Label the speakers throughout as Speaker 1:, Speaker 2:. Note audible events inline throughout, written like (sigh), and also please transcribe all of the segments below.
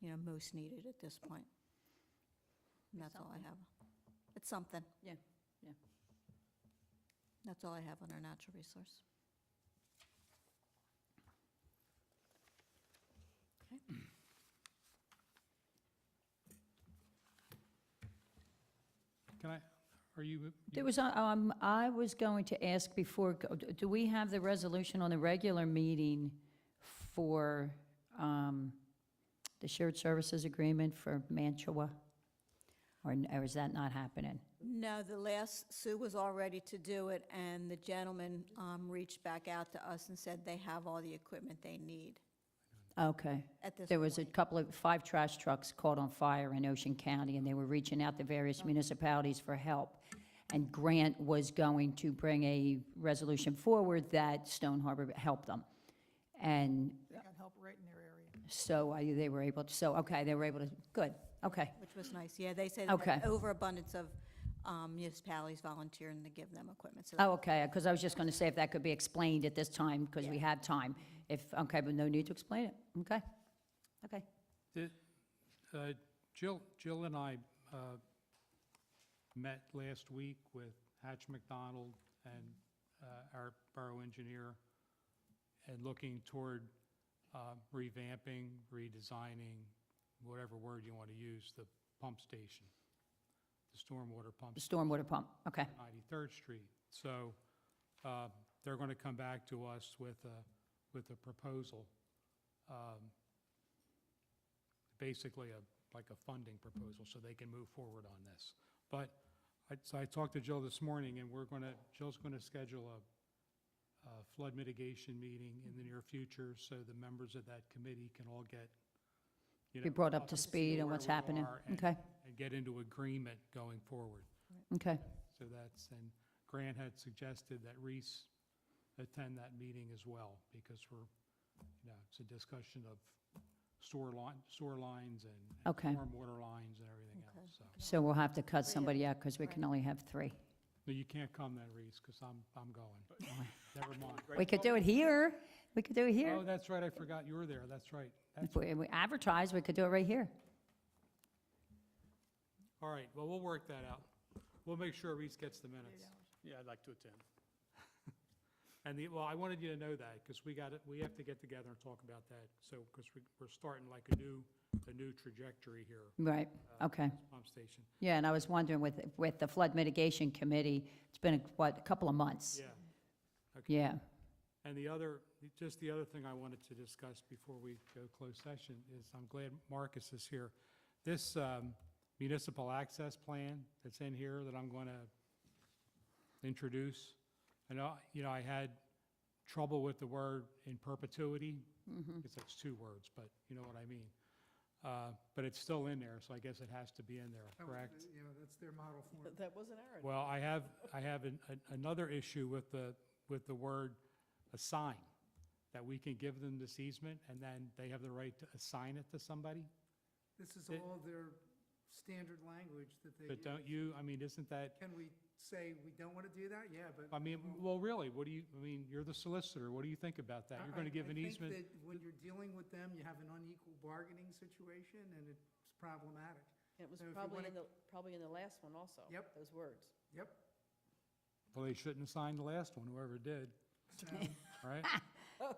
Speaker 1: you know, most needed at this point. And that's all I have. It's something.
Speaker 2: Yeah, yeah.
Speaker 1: That's all I have on our natural resource. Okay.
Speaker 3: Can I, are you?
Speaker 2: There was, a- um, I was going to ask before, go- do we have the resolution on the regular meeting for, um, the shared services agreement for Mantua? Or, n- or is that not happening?
Speaker 1: No, the last, Sue was all ready to do it, and the gentleman um, reached back out to us and said they have all the equipment they need
Speaker 2: Okay.
Speaker 1: at this point.
Speaker 2: There was a couple of, five trash trucks caught on fire in Ocean County, and they were reaching out to various municipalities for help. And Grant was going to bring a resolution forward that Stone Harbor helped them. And
Speaker 4: They got help right in their area.
Speaker 2: so I- they were able, to. so, okay, they were able to, good, okay,
Speaker 1: Which was nice, yeah, they said they had
Speaker 2: Okay.
Speaker 1: overabundance of um, municipalities volunteering to give them equipment, so
Speaker 2: oh, okay, because I was just going to say if that could be explained at this time, because we
Speaker 1: Yeah.
Speaker 2: have time. If, okay, but no need to explain it, okay, okay.
Speaker 3: Uh, Jill, Jill and I uh, met last week with Hatch McDonald and uh, our borough engineer, and looking toward uh, revamping, redesigning, whatever word you want to use, the pump station, the stormwater pump
Speaker 2: The stormwater pump, okay,
Speaker 3: 93rd Street. So uh, they're going to come back to us with a, with a proposal, um, basically a, like a funding proposal, so they can move forward on this. But I, so I talked to Jill this morning, and we're going to, Jill's going to schedule a a flood mitigation meeting in the near future, so the members of that committee can all get, you know.
Speaker 2: Be brought up to speed on
Speaker 3: where
Speaker 2: what's
Speaker 3: we
Speaker 2: happening.
Speaker 3: are and-
Speaker 2: Okay.
Speaker 3: And get into agreement going forward.
Speaker 2: okay,
Speaker 3: So that's, and Grant had suggested that Reese attend that meeting as well, because we're, you know, it's a discussion of sewer line, sewer lines and and
Speaker 2: Okay.
Speaker 3: stormwater lines and everything else, so.
Speaker 2: so we'll have to cut somebody out because we can only have three.
Speaker 3: No, you can't come then, Reese, because I'm, I'm going. Never mind.
Speaker 2: We could do it here, we could do it here.
Speaker 3: Oh, that's right, I forgot you were there, that's right. That's,
Speaker 2: If we we advertise, we could do it right here.
Speaker 3: all right, well, we'll work that out. We'll make sure Reese gets the minutes.
Speaker 5: Yeah, I'd like to attend.
Speaker 3: (laughs) And the, well, I wanted you to know that, because we got, we have to get together and talk about that, so, because we, we're starting like a new, a new trajectory here. uh,
Speaker 2: Right, okay.
Speaker 3: pump station.
Speaker 2: Yeah, and I was wondering with, with the flood mitigation committee, it's been, what, a couple of months?
Speaker 3: Yeah. Okay.
Speaker 2: Yeah,
Speaker 3: And the other, just the other thing I wanted to discuss before we go closed session is, I'm glad Marcus is here. This um, municipal access plan that's in here that I'm going to introduce, I know, you know, I had trouble with the word in perpetuity. It's, it's two words, but you know what I mean. Uh, But it's still in there, so I guess it has to be in there, correct?
Speaker 6: You know, that's their model form.
Speaker 4: That wasn't our.
Speaker 3: Well, I have, I have an- an- another issue with the, with the word assign, that we can give them this easement, and then they have the right to assign it to somebody?
Speaker 6: This is
Speaker 3: It-
Speaker 6: all their standard language that they,
Speaker 3: But
Speaker 6: use.
Speaker 3: don't you, I mean, isn't that,
Speaker 6: can we say we don't want to do that? Yeah, but.
Speaker 3: I mean, well, really, what do you, I mean, you're the solicitor, what do you think about that? You're
Speaker 6: I-
Speaker 3: going to
Speaker 6: I-
Speaker 3: give an
Speaker 6: I
Speaker 3: easement?
Speaker 6: think that when you're dealing with them, you have an unequal bargaining situation, and it's problematic.
Speaker 7: It was
Speaker 6: So if you
Speaker 7: probably
Speaker 6: wanna-
Speaker 7: in the, probably in the last one also.
Speaker 6: Yep.
Speaker 7: Those words.
Speaker 6: Yep.
Speaker 3: Well, they shouldn't assign the last one, whoever did,
Speaker 6: so (laughs)
Speaker 3: right?
Speaker 6: Um,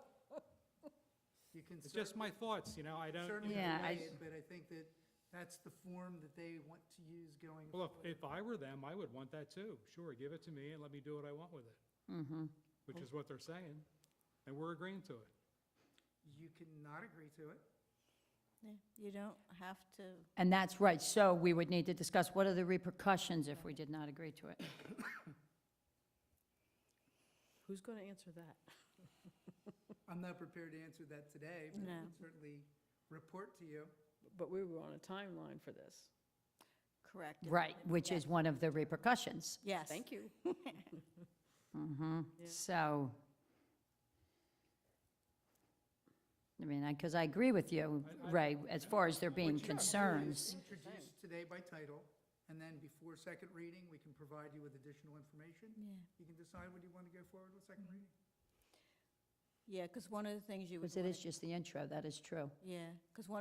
Speaker 6: You can
Speaker 3: It's just my
Speaker 6: certainly,
Speaker 3: thoughts, you know, I don't,
Speaker 6: certainly
Speaker 2: Yeah, I-
Speaker 6: delay it, but I think that that's the form that they want to use going
Speaker 3: well,
Speaker 6: forward.
Speaker 3: if- if I were them, I would want that too. Sure, give it to me and let me do what I want with it,
Speaker 2: mm-hmm,
Speaker 3: which is what they're saying, and we're agreeing to it.
Speaker 6: You cannot agree to it.
Speaker 1: Yeah, You don't have to,
Speaker 2: and that's right, so we would need to discuss what are the repercussions if we did not agree to it.
Speaker 7: Who's going to answer that?
Speaker 6: I'm not prepared to answer that today, but I
Speaker 1: No.
Speaker 6: can certainly report to you.
Speaker 7: But we were on a timeline for this.
Speaker 1: correct. it.
Speaker 2: Right, which
Speaker 1: Yeah.
Speaker 2: is one of the repercussions.
Speaker 1: Yes. (laughs)
Speaker 7: Thank you.
Speaker 2: Mm-hmm,
Speaker 7: Yeah.
Speaker 2: so. I mean, I because I agree with you,
Speaker 3: I- I-
Speaker 2: Ray, as far as there being
Speaker 6: What you can do is
Speaker 2: concerns.
Speaker 6: Introduce today by title, and then before second reading, we can provide you with additional information.
Speaker 1: Yeah.
Speaker 6: You can decide whether you want to go forward with second reading.
Speaker 1: Yeah, because one of the things you would
Speaker 2: Because it is
Speaker 1: want,
Speaker 2: just the intro, that is true.
Speaker 1: yeah, because one